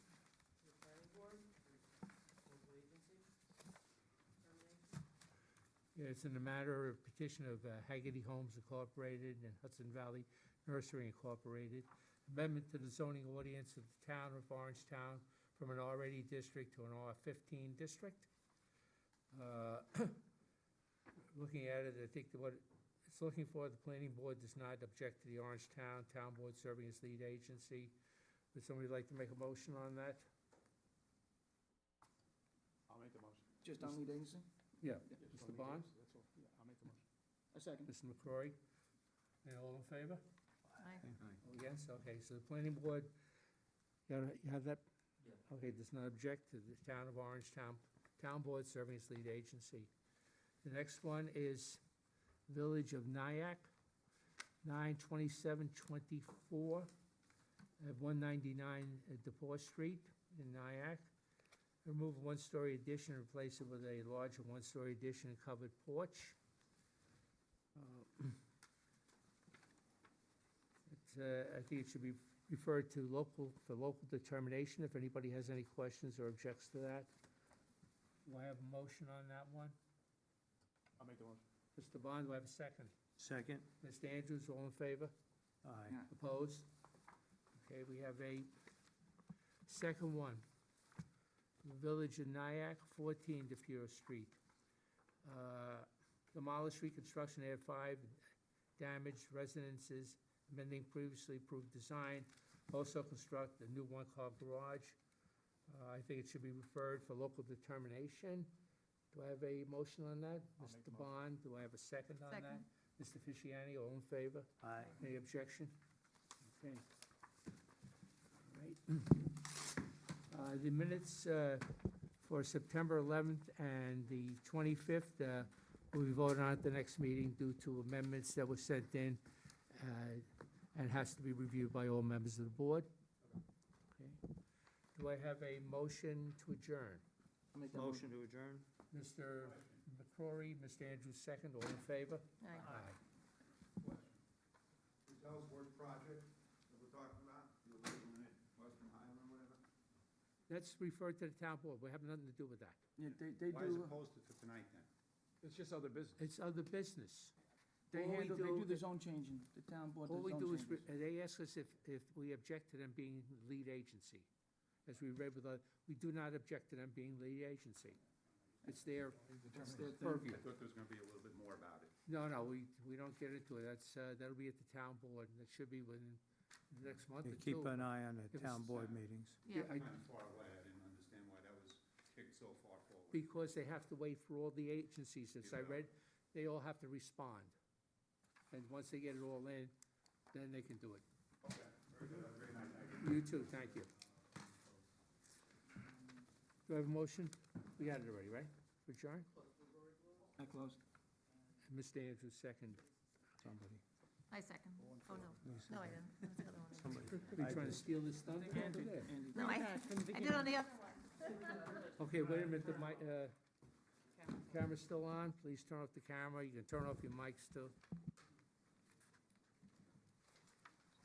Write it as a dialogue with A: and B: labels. A: Yeah, It's in the matter of petition of uh, Haggerty Homes Incorporated and Hudson Valley Nursery Incorporated. Amendment to the zoning ordinance of the town of Orangetown from an already district to an R fifteen district. Uh, Looking at it, I think that what it's looking for, the planning board does not object to the Orangetown Town Board serving as lead agency. Would somebody like to make a motion on that?
B: I'll make the motion.
C: Just on lead agency?
B: Just
A: Mr.
B: on the
A: Bond?
B: games, That's all, yeah, I'll make the motion.
C: A second.
A: Mr. McCrory? And all in favor?
D: Aye.
A: Oh, yes, okay, so the planning board, you have- you have that? Okay, does not object to the town of Orange Town, Town Board serving as lead agency. The next one is Village of Nyack, nine twenty-seven twenty-four, at one ninety-nine DePaul Street in Nyack. Remove one-story addition, and replace it with a larger one-story addition and covered porch. Uh, it's, uh, I think it should be referred to local, for local determination, if anybody has any questions or objects to that. Do I have a motion on that one?
B: I'll make the motion.
A: Mr. Bond, do I have a second?
E: Second?
A: Mr. Andrews, all in favor?
E: Aye.
A: Opposed? Okay, we have a second one. Village of Nyack, 14 DePere Street. Uh, Demolish reconstruction, add five damaged residences, amending previously approved design. Also construct a new one-car garage. Uh, I think it should be referred for local determination. Do I have a motion on that?
B: I'll make the
A: Mr.
B: motion.
A: Bond, do I have a second on that?
D: Second.
A: Mr. Fisciani, all in favor?
E: Aye.
A: Any objection? Okay. All right. Uh, The minutes uh, for September 11th and the 25th uh, will be voted on at the next meeting due to amendments that were sent in uh, and has to be reviewed by all members of the board. Okay. Do I have a motion to adjourn?
C: I'll make that
E: Motion to adjourn?
A: Mr. McCrory, Mr. Andrews, second, all in favor?
D: Aye.
F: The Ellsworth project that we're talking about, the eliminate Western Highland or whatever,
A: That's referred to the town board, we have nothing to do with that.
C: Yeah, they, they
F: why is it
C: do,
F: posted for tonight then?
B: It's just other business.
A: It's other business.
C: they
A: All we
C: handle, they do the
A: is-
C: zone changing, the town board
A: All
C: does
A: we
C: zone
A: do is,
C: changes.
A: re- they ask us if, if we object to them being lead agency. As we read with, the- we do not object to them being lead agency. It's their, it's their purview.
F: I thought there was gonna be a little bit more about it.
A: No, no, we, we don't get into it. That's, uh, that'll be at the town board, and it should be within the next month
E: Yeah,
A: or
E: Keep
A: two.
E: an eye on the
A: Give us
E: town
A: a
E: board
F: sign.
E: meetings.
D: Yeah,
A: I-
F: Kind of far away, I didn't understand why that was kicked so far forward.
A: Because they have to wait for all the agencies, as I
F: Yeah.
A: read, they all have to respond. And once they get it all in, then they can do it.
F: Okay, very good, Have a great night. Thank
A: You
F: you.
A: too, thank you. Do I have a motion? We got it already, right? For John?
C: I closed.
A: Mr. Andrews, second.
E: Somebody.
D: I second. Oh, no.
E: Lisa.
D: No, I didn't. That's the other one.
A: Are you trying to steal this thunder?
C: Andy, Andy.
D: No, I, I did on the other one.
A: Okay, wait a minute, the mic, uh, camera's still on, please turn off the camera, you can turn off your mics too.